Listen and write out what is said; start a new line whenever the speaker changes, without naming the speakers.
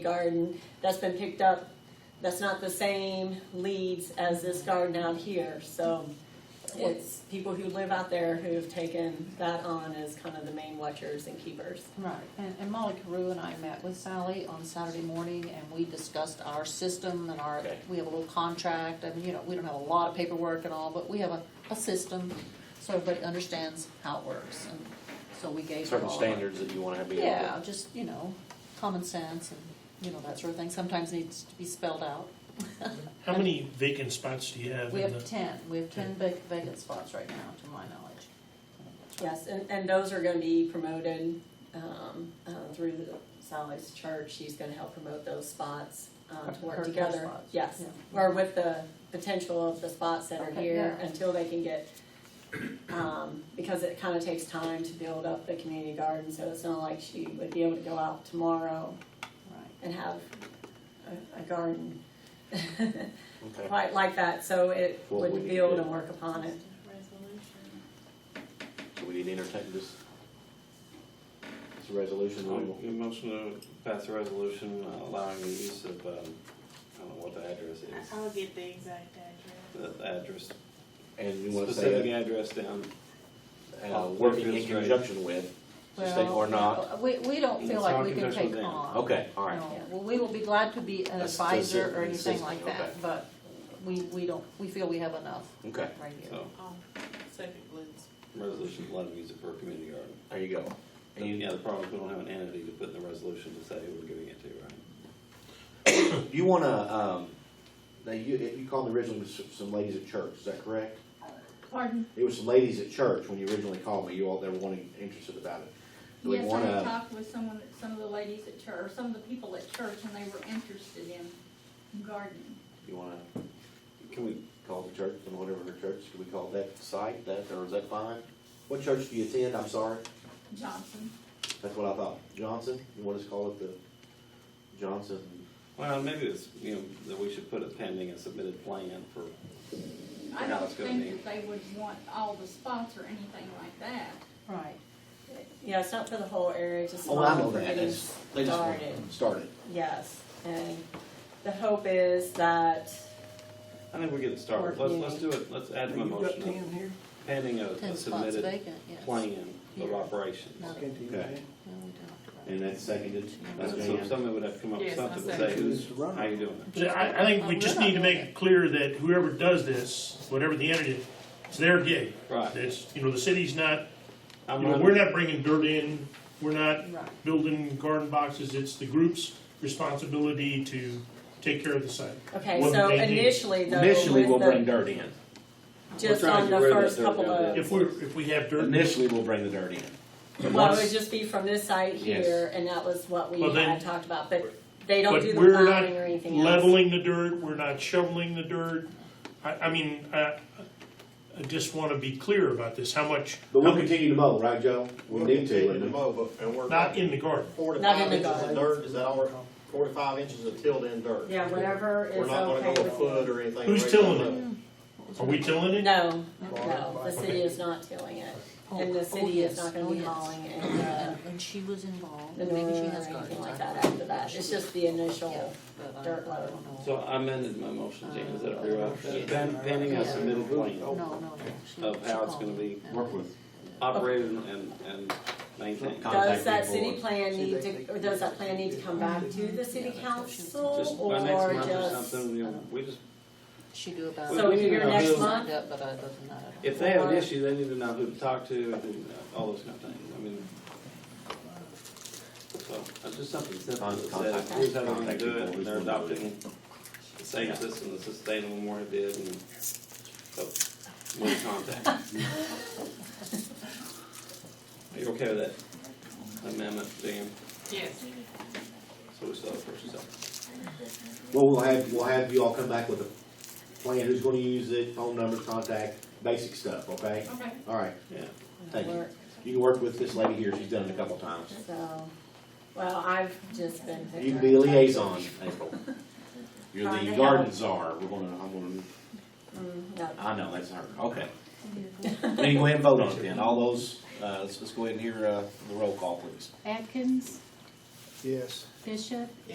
garden that's been picked up, that's not the same leads as this garden out here, so it's people who live out there who have taken that on as kind of the main watchers and keepers.
Right, and, and Molly Carew and I met with Sally on Saturday morning, and we discussed our system and our,
Okay.
we have a little contract, and, you know, we don't have a lot of paperwork and all, but we have a, a system, so everybody understands how it works, and so we gave her all.
certain
our-
standards that you want to be able
Yeah,
to.
just, you know, common sense and, you know, that sort of thing, sometimes needs to be spelled out.
How many vacant spots do you have?
We
in
have
the-
ten, we have ten vac- vacant spots right now, to my knowledge.
Yes, and, and those are gonna be promoted, um, uh, through the Sally's church, she's gonna help promote those spots, um, to
Her
work
care
together.
spots.
Yes,
Yeah.
or with the potential of the spots that are
Okay,
here
yeah.
until they can get, um, because it kinda takes time to build up the community garden, so it's not like she would be able to go out tomorrow
Right.
and have a, a garden
Okay.
quite like that, so it
Well, we
would
need
build
to-
and work upon it.
So we need to entertain this. It's a resolution. we will-
Your Um, motion to pass a resolution allowing the use of, um, I don't know what the address is,
I'll get the exact address.
the address,
And you want to
specific
say,
address down.
uh, uh, working in conjunction with, so say
Well,
or not.
yeah, We, we don't feel
It's
like
not
we can
conditional
take
then.
on.
Okay, all right.
No, well, we will be glad to be an
That's
advisor
the
or
si-
anything
system,
like
okay.
that, but we, we don't, we feel we have enough
Okay,
right here.
So,
Oh, second Glenn's.
resolution allowing use it for a community garden.
there you go. And you,
Yeah, the problem is we don't have an entity to put in the resolution to say who we're giving it to, right?
you want to, um, now you, you called originally s- some ladies at church, is that correct?
Pardon?
It was some ladies at church when you originally called me, you all, they were wanting, interested about it. Do we
Yes, I
want
had
to,
talked with someone, some of the ladies at church, or some of the people at church, and they were interested in gardening.
you want to
Can we,
call the church, and whatever her church, can we call that site, that, or is that fine? What church do you attend, I'm sorry?
Johnson,
That's what I thought. Johnson, you want us to call it the Johnson?
well, maybe it's, you know, that we should put a pending and submitted plan for,
I
Yeah,
don't
it's gonna be-
think that they would want all the spots or anything like that.
Right.
Yeah, it's not for the whole area, just.
Oh, I know
for
that.
getting
It's, they just want
started.
started.
Yes, and the hope is that,
I think we're getting started. Let's, let's do it, let's add my motion. up. Pending a-
Ten
a
spots
submitted
vacant, yes.
plan of
Yeah.
operations.
No,
Okay.
no, we don't.
And that's seconded. That's
So
Jan.
somebody would have to come up with
Yes, I
something to
say.
say, who's, how you doing it?
So I, I think we
Uh,
just
we're
need to
not
make
doing
it clear that whoever does this, whatever the entity, it's their gig.
Right.
It's, you know, the city's not, you
I'm
know,
not,
we're not bringing dirt in, we're not
Right.
building garden boxes, it's the group's responsibility to take care of the site.
okay,
What
so
they do.
initially though,
Initially, we'll
with
bring
the,
dirt in.
just
We're trying
on
to
the
get rid of
first
that
couple
dirt down
of,
If we're, if we have dirt,
Initially, we'll bring the dirt in. And
well, it
once-
would just be from this site
Yes.
here, and that was what we
Well, then-
had talked about, but they don't
but
do the
we're not
plowing or anything else.
leveling the dirt, we're not shoveling the dirt. I, I mean, I, I just want to be clear about this, how much,
But we'll continue to mow, right, Joe? We
We'll
need to.
continue
and
to
then-
mow, but, and we're.
not in the garden.
Four to
Not
five
in the
inches
garden.
of dirt, is that all, right? four to five inches of tilled in dirt?
Yeah, whatever is
We're not gonna
okay
go a
with.
foot or anything.
Who's
right
tilling
now.
it? Are we tilling it?
No, no, the city is not tilling it, and
Oh,
the city is
yes,
not gonna
oh,
be
yes.
hauling and, uh,
And, and she was involved,
the
and
manure
maybe she
or
has gardens.
anything like
I-
that after that, it's just the
Yeah,
initial,
but I-
dirt
I don't
load.
know.
so I amended my motion, Jan, is that all
Yeah.
right? Pen- Pending a submitted
No,
plan
no, no. she-
Of
she
how it's
called
gonna
me.
be
Yeah.
Work with.
operated and, and maintained.
Con-
Does
Contact
that
people.
city plan
See,
need
they-
to, or does that plan need to come back to the city council
Just
or
by next month or
just?
something, you know, we just,
She do about.
So
it.
your
Yeah,
next
she
month?
signed up, But I doesn't know.
if they have an issue, they need to know who to talk to and who- all those kind of things, I mean. So, it's just something simple that says, here's how they're gonna do it, and they're adopting the same system, the sustainable Moore did, and so, more contact. Are you okay with that amendment, Dan?
Yes.
So we still have first and second.
Well, we'll have, we'll have you all come back with a plan, who's gonna use it, phone numbers, contact, basic stuff, okay?
Okay.
All right,
Yeah.
thank you. You can work with this lady here, she's done it a couple times.
So, well, I've just been.
You can be a liaison, April. You're
Trying to
the
help.
garden czar, we're gonna, I'm gonna,
Mm, no.
I know, that's her, okay. Then you go ahead and vote on it then, all those, uh, let's, let's go ahead and hear, uh, the roll call, please.
Atkins,
Yes.
Bishop,